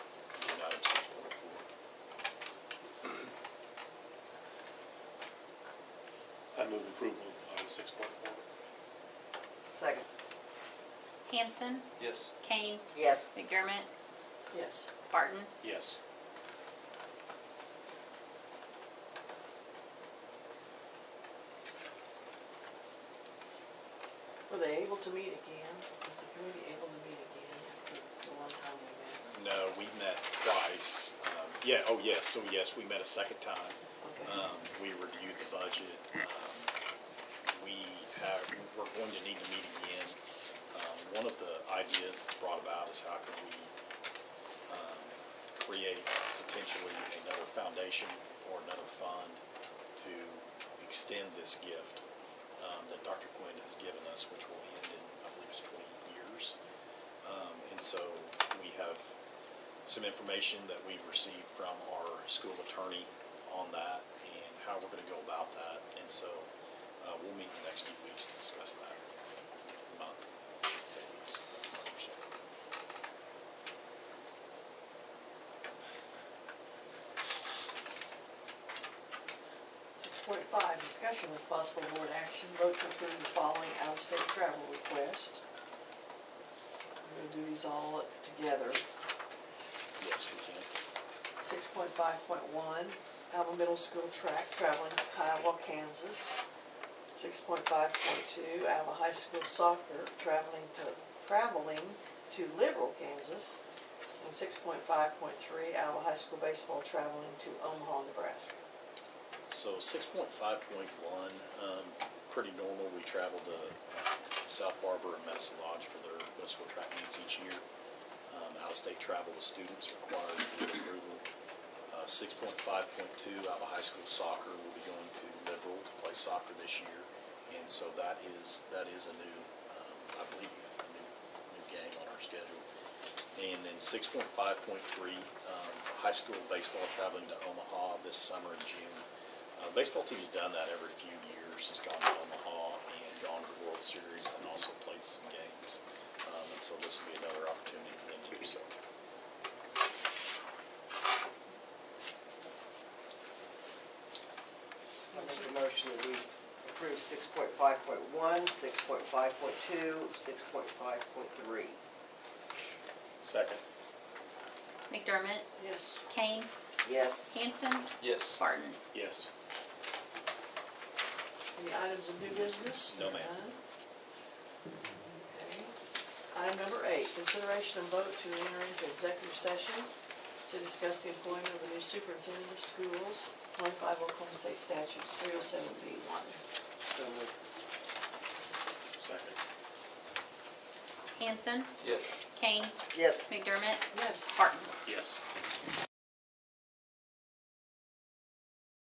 six point one. Second. Hanson, Yes. Kane, Yes. McDermott, Yes. Barton. Yes. Were they able to meet again? Was the committee able to meet again after the one time we met? No, we met twice. Um, Yeah, oh, yes, so yes, we met a second time. Okay. Um, We reviewed the budget. Um, We have, we're going to need to meet again. Um, One of the ideas that's brought about is how can we um, create potentially another foundation or another fund to extend this gift um, that Dr. Quinn has given us, which will end in, I believe it's 20 years. Um, And so we have some information that we've received from our school attorney on that and how we're gonna go about that. And so, uh, we'll meet the next few weeks to discuss that. Month, I should say weeks, month or so. Six point five, discussion with possible board action, vote to approve the following out-of-state travel request. I'm gonna do these all together. Yes, we can. Six point five point one, Alba Middle School track traveling to Kiowa, Kansas. Six point five point two, Alba High School soccer traveling to, traveling to Liberal, Kansas. And six point five point three, Alba High School baseball traveling to Omaha, Nebraska. So six point five point one, um, pretty normal. We travel to uh, South Harbor and Medicine Lodge for their Westwood track meets each year. Um, out-of-state travel with students required to get approval. Uh, six point five point two, Alba High School soccer, we'll be going to Liberal to play soccer this year. And so that is, that is a new, um, I believe, a new, new game on our schedule. And then six point five point three, um, high school baseball traveling to Omaha this summer in June. Uh, baseball team's done that every few years. It's gone to Omaha and gone to the World Series and also played some games. Um, and so this will be another opportunity for them to do so. I make a motion that we approve six point five point one, six point five point two, six point five point three. Second. McDermott, Yes. Kane, Yes. Hanson, Yes. Barton. Yes. Any items of new business? No, ma'am. None? Okay. Item number eight, consideration and vote to enter into executive session to discuss the employment of a new superintendent of schools, 25 Oklahoma State Statutes 307B1. So moved. Second. Hanson, Yes. Kane, Yes. McDermott, Yes. Barton. Yes.